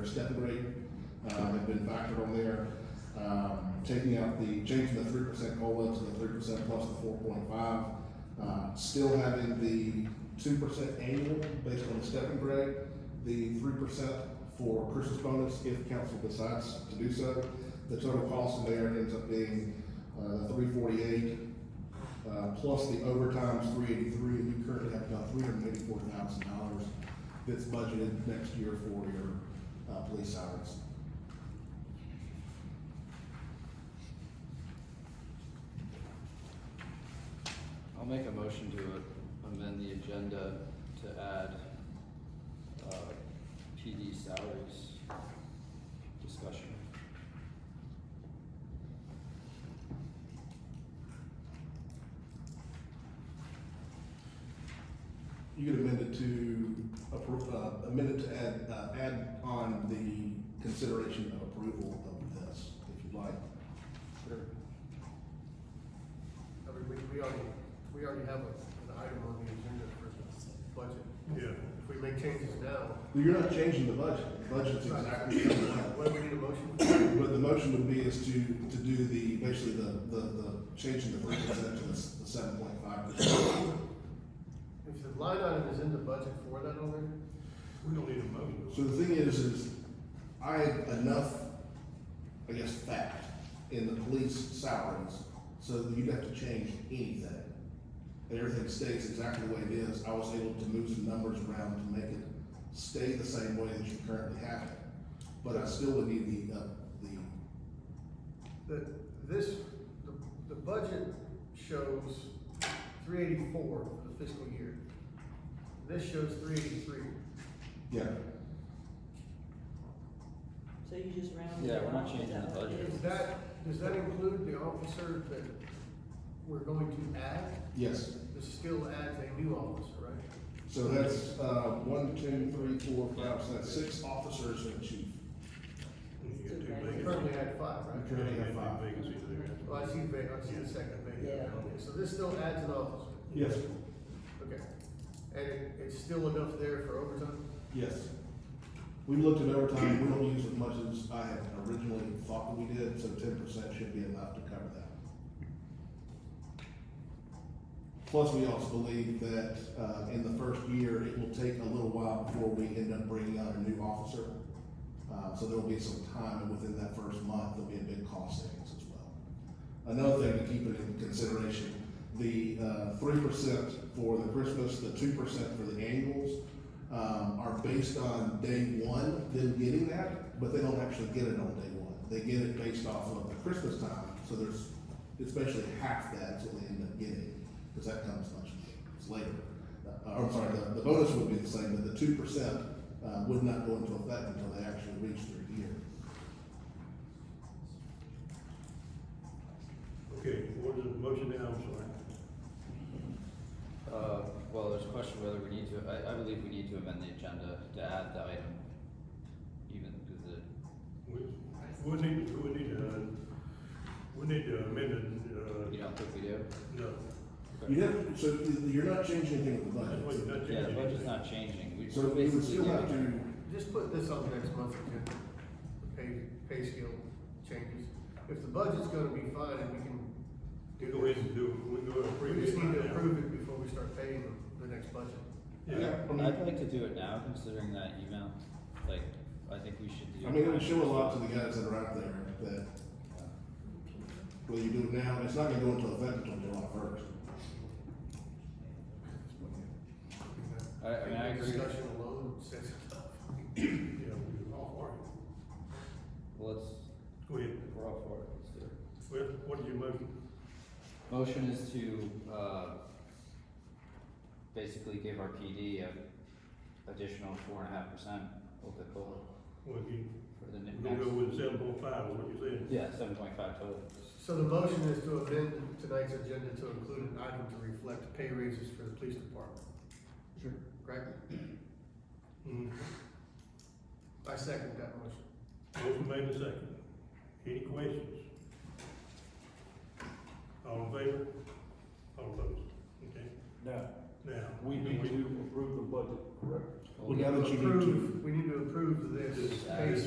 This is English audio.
Their stepping rate, um, had been factored on there. Um, taking out the, changing the three percent COLA to the three percent plus the four point five. Uh, still having the two percent annual based on the stepping grade, the three percent for Christmas bonus if council decides to do so. The total cost in there ends up being, uh, three forty-eight, uh, plus the overtime's three eighty-three, and you currently have about three hundred eighty-four thousand dollars that's budgeted next year for your, uh, police salaries. I'll make a motion to amend the agenda to add, uh, PD salaries discussion. You could amend it to approve, uh, amend it to add, uh, add on the consideration of approval of this, if you'd like. Sure. I mean, we, we already, we already have a- an item on the agenda for the budget. Yeah. If we make changes now, You're not changing the budget, the budget's exactly the same. what do we need a motion for? But the motion would be is to, to do the, basically the, the, the changing the three percent to the seven point five percent. If the line item is in the budget for that on there, we don't need a motion. So the thing is, is I had enough, I guess, fact in the police salaries, so that you'd have to change anything. And everything stays exactly the way it is, I was able to move some numbers around to make it stay the same way that you currently have it. But I still would need the, uh, the, The, this, the, the budget shows three eighty-four for the fiscal year. This shows three eighty-three. yeah, So you just round it Yeah, off? we're not changing the Is that what it budget. is? Does that, does that include the officer that we're going to add? yes. This still adds a new officer, right? So that's, uh, one, two, three, four, five, so that's six officers and a chief. You got two We vacancies. currently had five, right? You currently got two vacancies there. Well, I see, va- I see the second Yeah. vacant down there, so this still adds an officer, Yes. okay. And it, it's still enough there for overtime? Yes. We looked at overtime, we don't use as much as I had originally thought that we did, so ten percent should be enough to cover that. Plus, we also believe that, uh, in the first year, it will take a little while before we end up bringing out a new officer. Uh, so there'll be some time, and within that first month, there'll be a big cost savings as well. Another thing to keep it in consideration, the uh, three percent for the Christmas, the two percent for the annuals, um, are based on day one, them getting that, but they don't actually get it on day one. They get it based off of the Christmas time, so there's, it's basically half that's what they end up getting, because that comes much later. Uh, I'm sorry, the, the bonus would be the same, but the two percent uh, would not go into effect until they actually reach their year. Okay, what is the motion now, I'm sorry? Uh, well, there's a question whether we need to, I, I believe we need to amend the agenda to add the item, even because it, We, we need, we need, uh, we need to amend it, you don't think we do? uh, no. You have, so you're not changing anything with the That's why budget. you're not Yeah, the changing budget's anything. not changing, we So we would basically still have doing, to Just put this on next month's agenda, the pay, pay scale changes. If the budget's gonna be fine, and we can We do go this. ahead and do, we go ahead and approve We it just need to right now. approve it before we start paying them the next budget. Yeah, I mean- I'd like to do it now, considering that email, like, I think we should do. I mean, it would show a lot to the guys that are out there that, well, you do it now, it's not gonna go into effect until July first. I, I mean, I agree, Discussion alone says enough. yeah, we all for it. well, let's, Go ahead. we're all for it, let's do it. What, what is your motion? Motion is to, uh, basically give our PD a additional four and a half percent of the COLA Well, you, for the ne- we're gonna go next. with seven point five, is what you're saying? Yeah, seven point five total. So the motion is to amend tonight's agenda to include an item to reflect pay raises for the police department, Sure. correct? Mm. I second that motion. Motion made and second. Any questions? All in favor? All opposed? Okay, Now, now. we need to approve the budget, correct? Well, now that you need to- approve- We need to approve this This based